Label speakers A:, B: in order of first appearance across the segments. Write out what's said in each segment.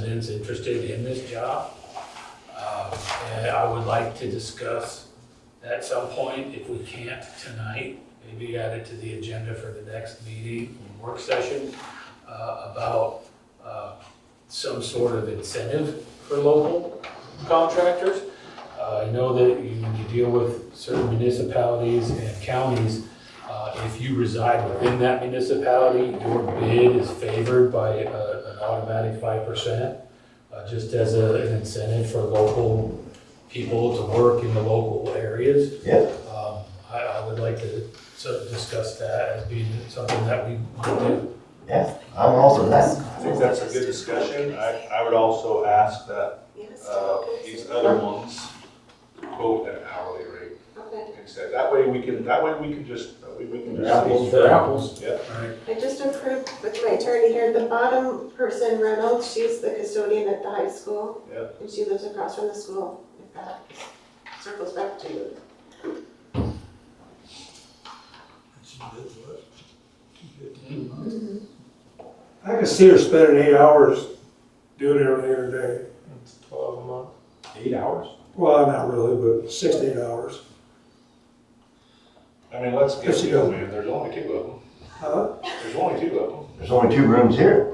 A: residents interested in this job. Um, And I would like to discuss at some point, if we can't tonight, maybe add it to the agenda for the next meeting, or work session, uh, about uh, some sort of incentive for local contractors. Uh, I know that you you deal with certain municipalities and counties. Uh, If you reside within that municipality, your bid is favored by uh, an automatic five percent, uh, just as a- an incentive for local people to work in the local areas.
B: Yeah.
A: Um, I, I would like to sort of discuss that as being something that we want to do.
B: Yeah, I'm also that.
C: I think that's a good discussion. I, I would also ask that, uh, these other ones quote an hourly rate
D: Okay,
C: instead. That way we can, that way we can just, that way we can just.
A: Apples to apples.
C: Yeah.
A: Right.
D: I just approved with my attorney here, the bottom person, Reynolds, she's the custodian at the high school.
C: Yeah.
D: And she lives across from the school, if that circles back to you.
E: Mm-hmm.
F: I can see her spending eight hours doing everything in a day. Twelve a month.
C: Eight hours?
F: Well, not really, but six to eight hours.
C: I mean, let's get
F: Yes, you
C: real,
F: do.
C: man. There's only two of them.
F: Huh?
C: There's only two of them.
B: There's only two rooms here.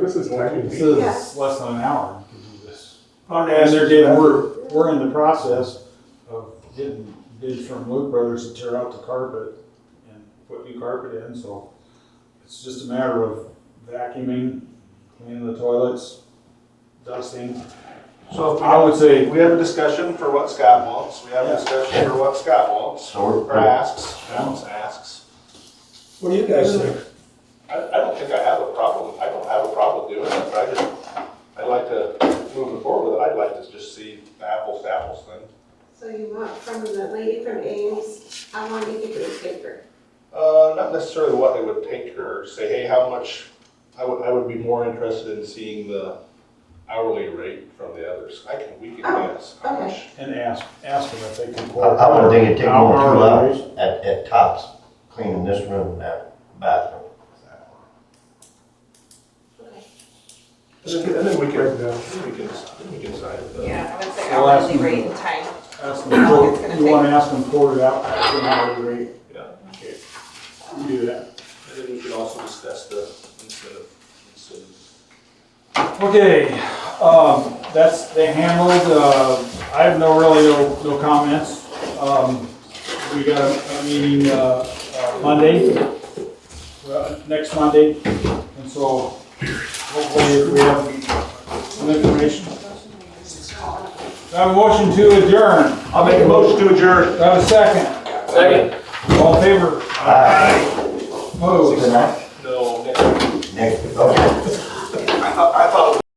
C: This is
G: This
C: tiny.
G: is less than an hour to do this.
F: On
G: And they're
F: average,
G: getting, we're, we're in the process of getting bids from Luke Brothers to tear out the carpet and put new carpet in, so it's just a matter of vacuuming, cleaning the toilets, dusting.
C: So if
G: I
C: we,
G: would say,
C: we have a discussion for what Scott wants. We have a
G: Yeah.
C: discussion for what Scott wants,
B: So
C: or
B: we're,
C: asks, Alan's asks.
F: What do you guys think?
C: I, I don't think I have a problem. I don't have a problem doing it, but I just, I'd like to, moving forward with it, I'd like to just see the apples to apples thing.
D: So you want from the lady from Ames, I want you to do a paper.
C: Uh, not necessarily what they would take or say, hey, how much, I would, I would be more interested in seeing the hourly rate from the others. I can, we can guess how
D: okay.
C: much.
G: and ask, ask them if they can.
B: I, I would think it'd take more than two hours at, at tops, cleaning this room and that bathroom.
D: Okay.
C: And then we can, then we can, then we can decide. if the-
E: Yeah, I would say
G: Well, that's-
E: hourly rate and time.
G: Ask
E: How
G: them,
E: long it's
G: quote-
E: gonna
G: you wanna ask them quote it out at an hourly rate,
C: Yeah, okay.
G: you do that.
C: And then we can also discuss the incentive, incentives.
G: Okay, um, that's, they handled, uh, I have no really, no, no comments. Um, we got a, a meeting, uh, uh, Monday, well, next Monday, and so hopefully if we have some information. Do I have a motion to adjourn. I'll make a motion to adjourn. I have a second.
A: Second.
G: All in favor?
B: Aye.
G: Opposed?
B: Tonight,
C: No, next
B: next, oh,